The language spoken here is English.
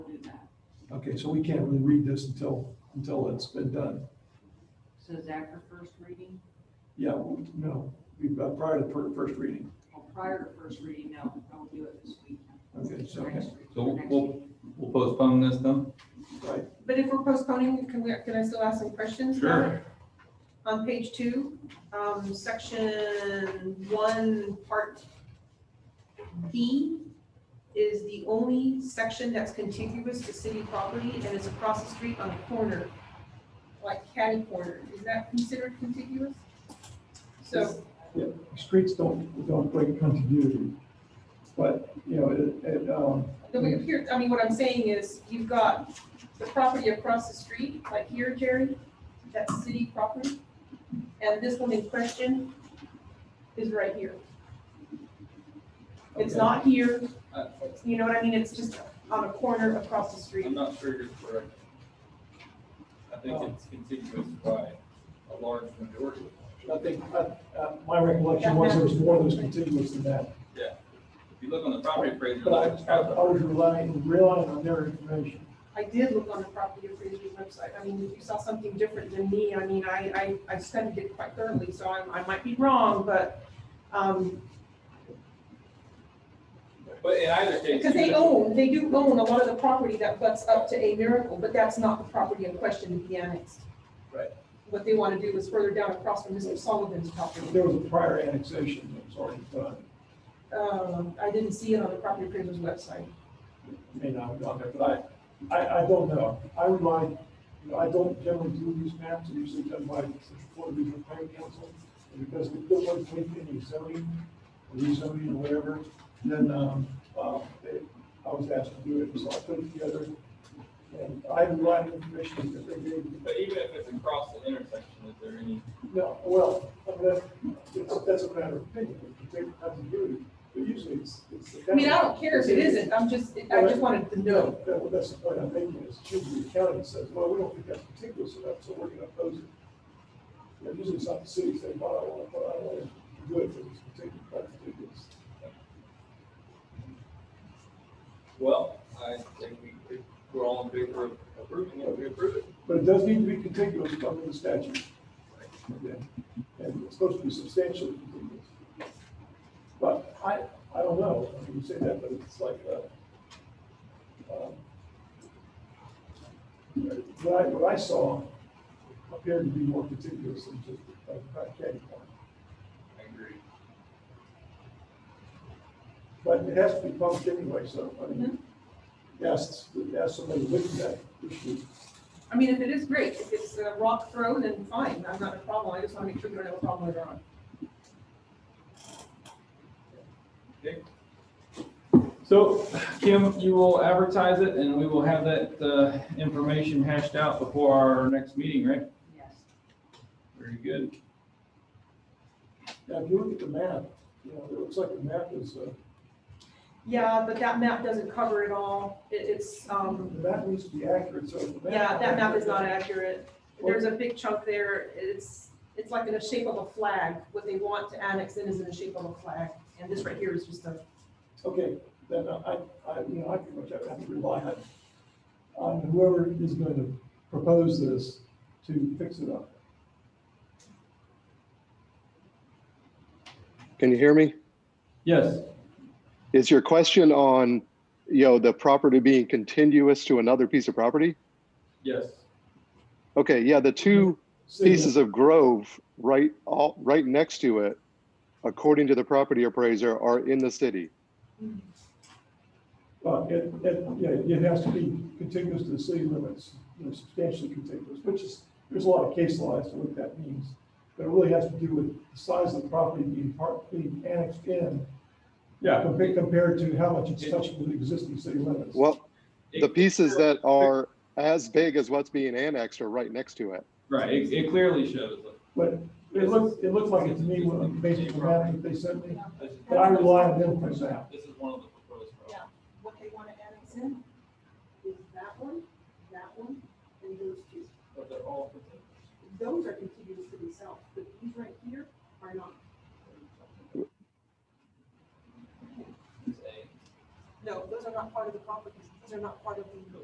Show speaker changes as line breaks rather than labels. Okay, so we can't really read this until, until it's been done.
So is that for first reading?
Yeah, we- no, we've got prior to fir- first reading.
Well, prior to first reading, no, don't do it this week.
Okay, so,
Next
right,
week,
So we'll-
next
we'll-
week.
We'll postpone this then?
But if we're postponing, can we, can I still ask some questions? about it? On page two, um, section one, part B is the only section that's contiguous to city property and it's across the street on a corner, like catty corner. Is that considered contiguous? So,
streets don't, don't break continuity. But, you know, it, it, um,
the way up here, I mean, what I'm saying is you've got the property across the street, like here, Jerry, that's city property. And this one in question is right here. It's
Okay.
not here,
I-
you know what I mean? It's just on a corner across the
I'm
street.
not sure you're correct. I think it's contiguous by a large majority.
I think, uh, uh, my recollection was there was more that was contiguous than that.
If you look on the property appraisal,
But I,
it's
I
got
I was relying, relying on their information.
I did look on the property appraisers website. I mean, if you saw something different than me, I mean, I, I, I studied it quite thoroughly, so I, I might be wrong, but, um,
the- But in either case.
because they
you-
own, they do own a lot of the property that butts up to A Miracle, but that's not the property in question to be annexed.
Right.
What they want to do is further down across from Mr. Sullivan's property.
There was a prior annexation that was already done.
Um, I didn't see it on the property appraisers website.
may not have gone there, but I, I, I don't know. I would like, you know, I don't generally do these maps, they're usually done by the Florida Regional Planning Council. And because they don't want to take any zoning, or rezoning or whatever, then, um, uh, they, I was asked to do it, so I put it together. And I have a lot of information that they gave, me.
But even if it's across the intersection, is there any,
no, well, I mean, that's, that's a matter of opinion, if you take continuity, but usually it's, it's. the
I mean, I don't care if it isn't, I'm just, I just wanted to know.
That- well, that's the point I'm making, is usually the county says, well, we don't think that's contiguous enough, so we're gonna oppose it. You know, Usually it's not the city saying, well, I wanna, well, I wanna do it, but it's contiguous, not contiguous.
well, I think we, if we're all in favor of approving it, we approve it.
But it does need to be contiguous under the statute. Yeah. And it's supposed to be substantially contiguous. But I, I don't know, I mean, you say that, but it's like, uh, um, what I, what I saw appeared to be more contiguous than just a catty corner.
I agree.
But it has to be published anyway, so, I mean, yes, yes, somebody looked at that issue.
I mean, if it is great, if it's a rock throw, then fine, I'm not a problem, I just want to make sure we don't have a problem later on.
So Kim, you will advertise it and we will have that uh, information hashed out before our next meeting, right?
Yes.
Very good.
Now, if you look at the map, you know, it looks like the map is, uh,
Yeah, but that map doesn't cover it all, it, it's, um,
the map needs to be accurate, so. if the
yeah, that map is not accurate. There's a big chunk there, it's, it's like in the shape of a flag, what they want to annex in is in the shape of a flag, and this right here is just a,
Okay, then I, I, you know, I pretty much have to rely on, on whoever is going to propose this to fix it up.
Can you hear me?
Yes,
Is your question on, you know, the property being contiguous to another piece of property?
yes.
Okay, yeah, the two
So,
pieces of grove right, all, right next to it, according to the property appraiser, are in the city.
But uh, it, it, yeah, it has to be contiguous to the city limits, you know, substantially contiguous, which is, there's a lot of case law as to what that means. But it really has to do with the size of the property being part, being annexed in,
Yeah.
compa- compared to how much it's touching the existing city limits.
Well, the pieces that are as big as what's being annexed are right next to it.
Right, it it clearly shows.
But it looked, it looked like it to me when it based on the map that they sent me,
This is-
but I rely on them for that.
This is one of the proposed. properties.
what they want to annex in.